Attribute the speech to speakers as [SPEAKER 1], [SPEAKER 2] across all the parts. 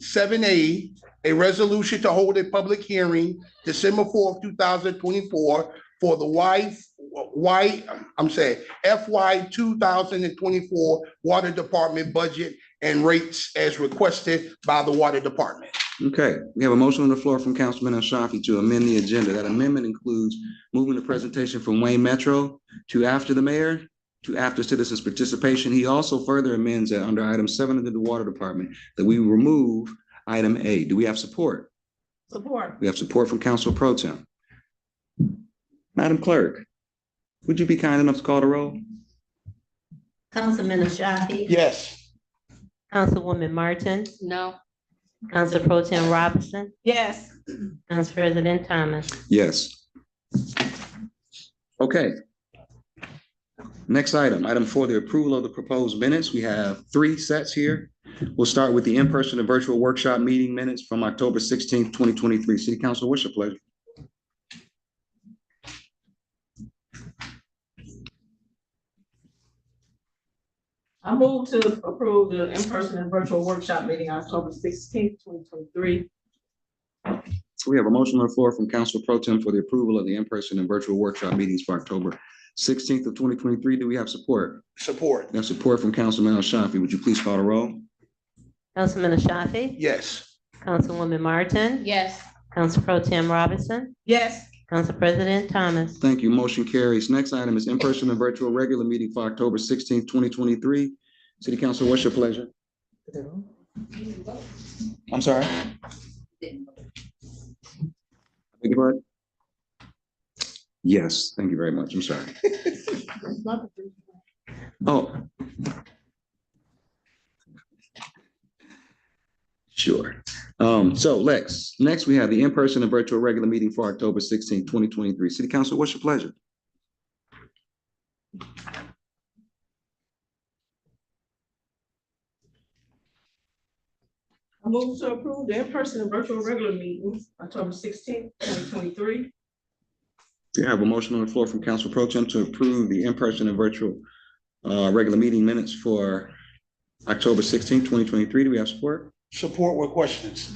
[SPEAKER 1] Seven A, a resolution to hold a public hearing December fourth, two thousand twenty-four for the Y, Y, I'm saying FY two thousand and twenty-four Water Department budget and rates as requested by the Water Department.
[SPEAKER 2] Okay, we have a motion on the floor from Councilman Ashafi to amend the agenda. That amendment includes moving the presentation from Wayne Metro to after the mayor, to after citizens' participation. He also further amends that under item seven under the water department, that we remove item A. Do we have support?
[SPEAKER 3] Support.
[SPEAKER 2] We have support from Council Pro Tem. Madam Clerk, would you be kind enough to call the roll?
[SPEAKER 3] Councilman Ashafi.
[SPEAKER 1] Yes.
[SPEAKER 4] Councilwoman Martin,
[SPEAKER 5] No.
[SPEAKER 4] Council Pro Tim Robinson,
[SPEAKER 3] Yes.
[SPEAKER 4] Council President Thomas.
[SPEAKER 2] Yes. Okay. Next item, item for the approval of the proposed minutes. We have three sets here. We'll start with the in-person and virtual workshop meeting minutes from October sixteenth, twenty twenty-three. City Council, what's your pleasure?
[SPEAKER 3] I move to approve the in-person and virtual workshop meeting October sixteenth, twenty twenty-three.
[SPEAKER 2] We have a motion on the floor from Council Pro Tem for the approval of the in-person and virtual workshop meetings for October sixteenth of twenty twenty-three. Do we have support?
[SPEAKER 1] Support.
[SPEAKER 2] We have support from Councilman Al Shafi. Would you please call the roll?
[SPEAKER 4] Councilman Ashafi,
[SPEAKER 1] Yes.
[SPEAKER 4] Councilwoman Martin,
[SPEAKER 5] Yes.
[SPEAKER 4] Council Pro Tim Robinson,
[SPEAKER 3] Yes.
[SPEAKER 4] Council President Thomas.
[SPEAKER 2] Thank you. Motion carries. Next item is in-person and virtual regular meeting for October sixteenth, twenty twenty-three. City Council, what's your pleasure? I'm sorry? Beg your pardon? Yes, thank you very much. I'm sorry. Oh. Sure. Um, so Lex, next we have the in-person and virtual regular meeting for October sixteenth, twenty twenty-three. City Council, what's your pleasure?
[SPEAKER 3] I move to approve the in-person and virtual regular meetings October sixteenth, twenty twenty-three.
[SPEAKER 2] We have a motion on the floor from Council Pro Tem to approve the in-person and virtual uh, regular meeting minutes for October 16, twenty twenty-three. Do we have support?
[SPEAKER 1] Support with questions.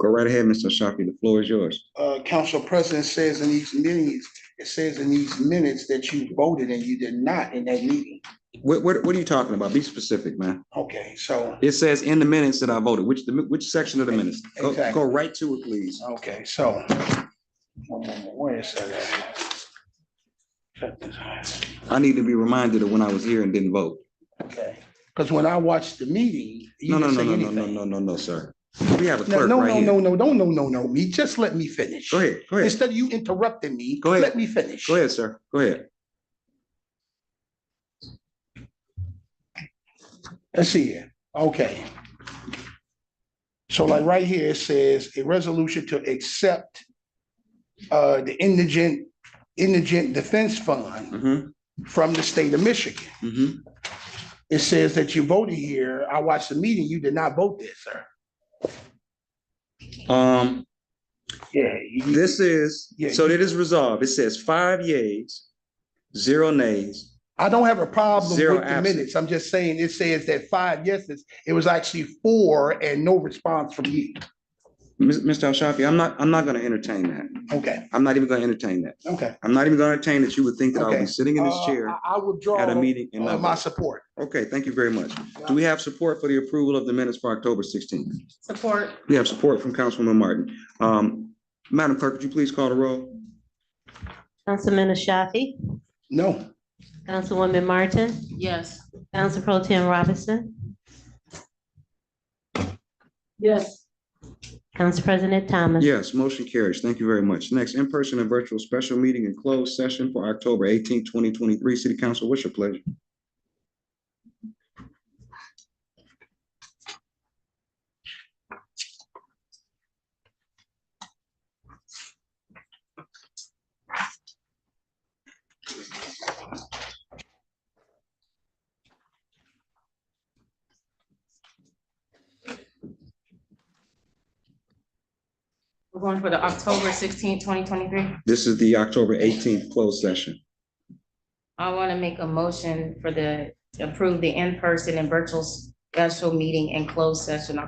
[SPEAKER 2] Go right ahead, Mr. Shafi. The floor is yours.
[SPEAKER 1] Uh, Council President says in these meetings, it says in these minutes that you voted and you did not in that meeting.
[SPEAKER 2] What, what, what are you talking about? Be specific, man.
[SPEAKER 1] Okay, so,
[SPEAKER 2] It says in the minutes that I voted, which, the which section of the minutes? Go,
[SPEAKER 1] Exactly.
[SPEAKER 2] go right to it, please.
[SPEAKER 1] okay, so. One moment, Wait a second. Check this out.
[SPEAKER 2] I need to be reminded of when I was here and didn't vote.
[SPEAKER 1] Okay, because when I watched the meeting, you
[SPEAKER 2] No, no,
[SPEAKER 1] didn't say
[SPEAKER 2] no, no, no, no,
[SPEAKER 1] anything.
[SPEAKER 2] no, no, no, sir. We have a
[SPEAKER 1] No,
[SPEAKER 2] clerk
[SPEAKER 1] no,
[SPEAKER 2] right
[SPEAKER 1] no,
[SPEAKER 2] here.
[SPEAKER 1] no, no, don't, no, no, no, me, just let me finish.
[SPEAKER 2] Go ahead, go ahead,
[SPEAKER 1] Instead of you interrupting me,
[SPEAKER 2] Go ahead.
[SPEAKER 1] let me finish.
[SPEAKER 2] go ahead, sir. Go ahead.
[SPEAKER 1] Let's see here, okay. So like right here, it says a resolution to accept uh, the indigent, indigent defense fund
[SPEAKER 2] Mm-hmm,
[SPEAKER 1] from the state of Michigan.
[SPEAKER 2] mm-hmm.
[SPEAKER 1] It says that you voted here, I watched the meeting, you did not vote there, sir.
[SPEAKER 2] Um,
[SPEAKER 1] Yeah. you-
[SPEAKER 2] this is,
[SPEAKER 1] Yeah.
[SPEAKER 2] so it is resolved. It says five yays, zero nays.
[SPEAKER 1] I don't have a problem
[SPEAKER 2] Zero
[SPEAKER 1] with the
[SPEAKER 2] absent.
[SPEAKER 1] minutes, I'm just saying, it says that five yeses, it was actually four and no response from you.
[SPEAKER 2] Mis- Mr. Al-Shafi, I'm not, I'm not gonna entertain that.
[SPEAKER 1] Okay,
[SPEAKER 2] I'm not even gonna entertain that.
[SPEAKER 1] okay.
[SPEAKER 2] I'm not even gonna entertain that you would think that I'll
[SPEAKER 1] Okay.
[SPEAKER 2] be sitting in this
[SPEAKER 1] Uh,
[SPEAKER 2] chair
[SPEAKER 1] I I withdraw
[SPEAKER 2] at a meeting and
[SPEAKER 1] uh, my
[SPEAKER 2] not.
[SPEAKER 1] support.
[SPEAKER 2] Okay, thank you very much. Do we have support for the approval of the minutes for October sixteenth?
[SPEAKER 3] Support.
[SPEAKER 2] We have support from Councilwoman Martin. Um, Madam Clerk, would you please call the roll?
[SPEAKER 4] Councilman Ashafi,
[SPEAKER 1] No,
[SPEAKER 4] Councilwoman Martin,
[SPEAKER 5] Yes.
[SPEAKER 4] Council Pro Tim Robinson,
[SPEAKER 3] Yes.
[SPEAKER 4] Council President Thomas.
[SPEAKER 2] Yes, motion carries. Thank you very much. Next, in-person and virtual special meeting and closed session for October eighteenth, twenty twenty-three. City Council, what's your pleasure?
[SPEAKER 5] We're going for the October sixteenth, twenty twenty-three.
[SPEAKER 2] This is the October eighteenth closed session.
[SPEAKER 5] I want to make a motion for the, to approve the in-person and virtual special meeting and closed session